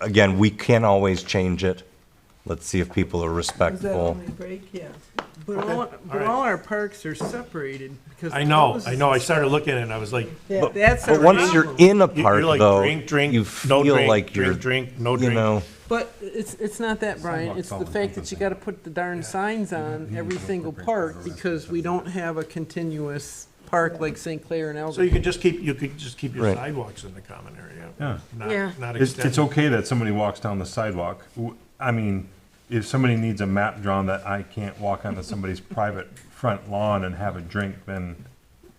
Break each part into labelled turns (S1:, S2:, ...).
S1: again, we can always change it. Let's see if people are
S2: Is that
S1: respectful.
S2: only break? Yeah. But all, but
S3: right.
S2: all our parks are separated because.
S3: I know,
S2: those-
S3: I know, I started looking at it, and I was like,
S2: that-
S1: But,
S2: That's a
S1: but once you're
S2: problem.
S1: in a
S3: you're
S1: park,
S3: like,
S1: though,
S3: drink, drink,
S1: you
S3: no
S1: feel
S3: drink,
S1: like
S3: drink,
S1: you're,
S3: drink, no
S1: you
S3: drink.
S1: know,
S2: But it's, it's not that, Brian. It's the fact that you gotta put the darn signs
S3: Mm-hmm.
S2: on every single park because we don't have a continuous park like St. Clair and
S3: so you
S2: Elgin.
S3: could just keep, you could just keep your
S1: Right.
S3: sidewalks in the common area.
S4: Yeah.
S3: not-
S5: Yeah.
S3: Not
S4: It's, it's
S3: extend,
S4: okay that somebody walks down the sidewalk. W- I mean, if somebody needs a map drawn that I can't walk onto somebody's private front lawn and have a drink, then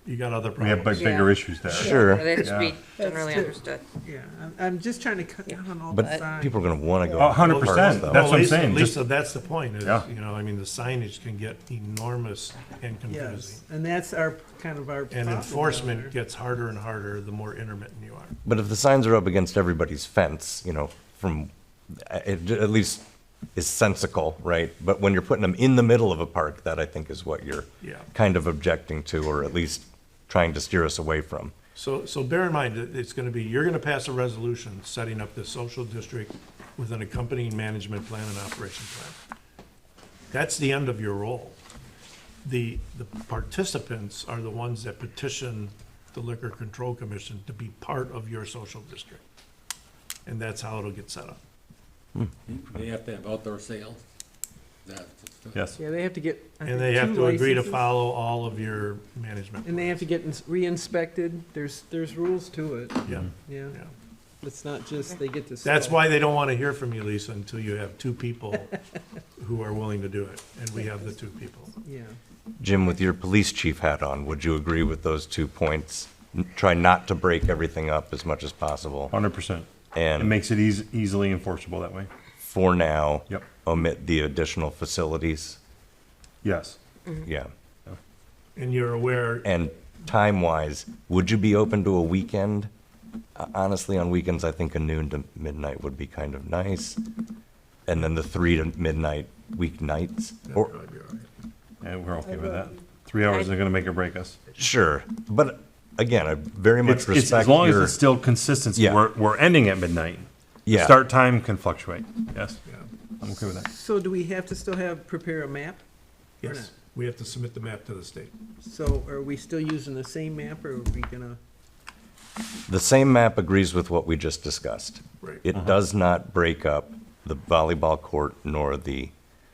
S3: you got other
S4: we have big-
S3: problems.
S4: bigger issues there.
S1: sure,
S5: That should be
S4: Yeah.
S5: generally
S2: That's
S5: understood.
S2: Yeah, I'm, I'm just trying to cut down on all the
S1: but
S2: signs.
S1: people are going to want to go.
S4: A hundred
S1: to parks,
S4: percent.
S1: though.
S4: That's what I'm
S3: Lisa-
S4: saying, just-
S3: Lisa, that's the point, is,
S4: Yeah.
S3: you know, I mean, the signage can get enormous and confusing.
S2: Yes, and that's our, kind of our.
S3: And
S2: problem
S3: enforcement
S2: there.
S3: gets harder and harder the more intermittent you are.
S1: But if the signs are up against everybody's fence, you know, from, it at least is sensical, right? But when you're putting them in the middle of a park, that I think is what you're
S3: Yeah.
S1: kind of objecting to, or at least trying to steer us away from.
S3: So, so bear in mind, that it's gonna be, you're gonna pass a resolution setting up this social district with an accompanying management plan and operation plan. That's the end of your role. The, the participants are the ones that petition the Liquor Control Commission to be part of your social district. And that's how it'll get set up.
S6: They have to have outdoor sales. That-
S4: Yes.
S2: Yeah, they have to get. I
S3: And
S2: think,
S3: they have
S2: two
S3: to agree to
S2: licenses.
S3: follow all of your management.
S2: And they have to get ins- re-inspected. There's, there's rules to it,
S3: Yeah,
S2: yeah.
S3: yeah.
S2: It's not just they get to.
S3: That's
S2: sell.
S3: why they don't wanna hear from you, Lisa, until you have two people who are willing to do it, and we have the two people.
S2: Yeah.
S1: Jim, with your police chief hat on, would you agree with those two points? N- Try not to break everything up as much as possible,
S4: Hundred percent. It
S1: and
S4: makes it eas- easily enforceable that way.
S1: for now,
S4: Yep.
S1: omit the additional facilities?
S4: Yes.
S1: Yeah.
S3: And you're aware,
S1: And time-wise, would you be open to a weekend? Uh, Honestly, on weekends, I think a noon to midnight would be kind of nice. And then the three to midnight weeknights, or,
S4: And we're okay with that. Three hours isn't gonna make or break us.
S1: sure. But again, I very much
S4: It's, it's,
S1: respect
S4: as long as
S1: your,
S4: it's still consistent,
S1: Yeah.
S4: we're, we're ending at midnight.
S1: Yeah.
S4: Start time can fluctuate. Yes. I'm okay with that.
S2: So do we have to still have, prepare a map? Or
S3: yes, we have to submit the map to the state.
S2: So are we still using the same map or are we gonna?
S1: the same map agrees with what we just discussed.
S3: Right.
S1: It does not break up the volleyball court nor the,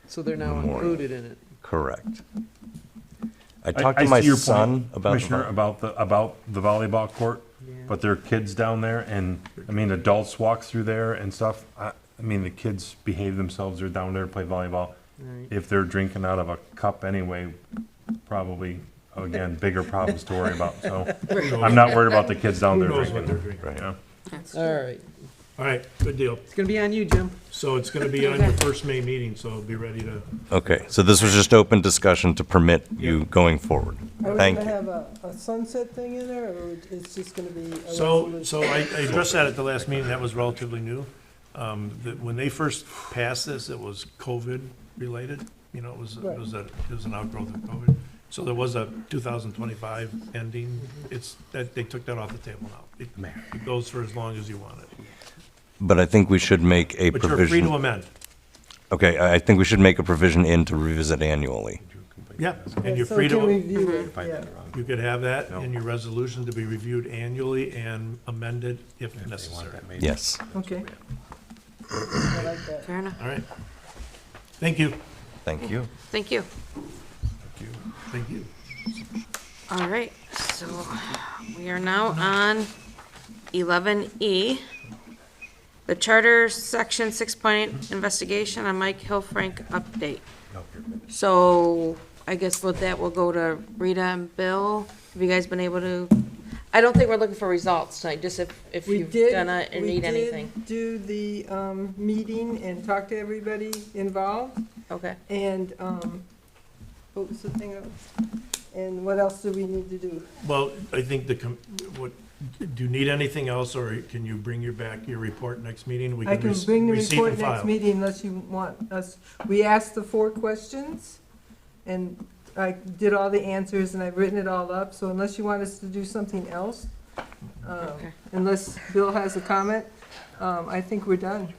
S2: So they're now
S1: Memorial.
S2: included in it.
S1: correct. I
S4: I-
S1: talked
S4: I
S1: to my
S4: see your point,
S1: son about, the
S4: Commissioner,
S1: vol-
S4: about the, about the volleyball court,
S2: Yeah.
S4: but there are kids down there and, I mean, adults walk through there and stuff. I, I mean, the kids behave themselves, they're down there to play volleyball.
S2: Right.
S4: If they're drinking out of a cup anyway, probably, again, bigger problems to worry about, so. I'm not worried about the kids down
S3: Who
S4: there
S3: knows what they're
S4: drinking.
S3: drinking?
S4: Yeah.
S2: All right.
S3: All right, good deal.
S2: It's gonna be on you, Jim.
S3: So it's gonna be on your first May meeting, so be ready to,
S1: okay, so this was just open discussion to permit you going forward. Thank you.
S7: Are we gonna have a, a sunset thing in there, or it's just gonna be? a
S3: so,
S7: resolution?
S3: so I, I addressed that at the last meeting, that was relatively new. Um, that when they first passed this, it was COVID related, you know, it was, it
S7: Right.
S3: was a, it was an outgrowth of COVID. So there was a two thousand twenty-five ending,
S7: Mm-hmm.
S3: it's, that, they took that off the table now. It- It goes for as long as you want it,
S1: But I think we should make a
S3: but you're free to
S1: provision,
S3: amend,
S1: okay, I I think we should make a provision in to revisit annually.
S3: yeah,
S7: Yeah,
S3: and you're
S7: so
S3: free
S7: can
S3: to,
S7: we view it?
S4: If I did
S7: Yeah.
S4: it wrong.
S3: You could have that
S4: No.
S3: in your resolution to be reviewed annually and amended if
S4: They want
S3: necessary.
S4: that made.
S1: Yes.
S2: Okay.
S7: I like that.
S5: Fair enough.
S3: All right. Thank you.
S1: Thank you.
S5: Thank you.
S3: Thank you.
S5: All right, so we are now on eleven E. The Charter Section Six Point Investigation on Mike Hillfrank Update. So I guess with that, we'll go to Rita and Bill. Have you guys been able to, I don't think we're looking for results tonight, just if, if
S7: We
S5: you've
S7: did,
S5: done it and
S7: we
S5: need anything.
S7: did do the, um, meeting and talk to everybody involved,
S5: Okay,
S7: and, um, what was the thing else? And what else do we need to do?
S3: Well, I think the, com- what, do you need anything else, or can you bring your back, your report next meeting? We
S7: I can
S3: rec-
S7: bring the
S3: receive
S7: report
S3: and
S7: next
S3: file.
S7: meeting unless you want us, we asked the four questions, and I did all the answers, and I've written it all up, so unless you want us to do something else, um,
S5: Okay.
S7: unless Bill has a comment, um, I think we're done.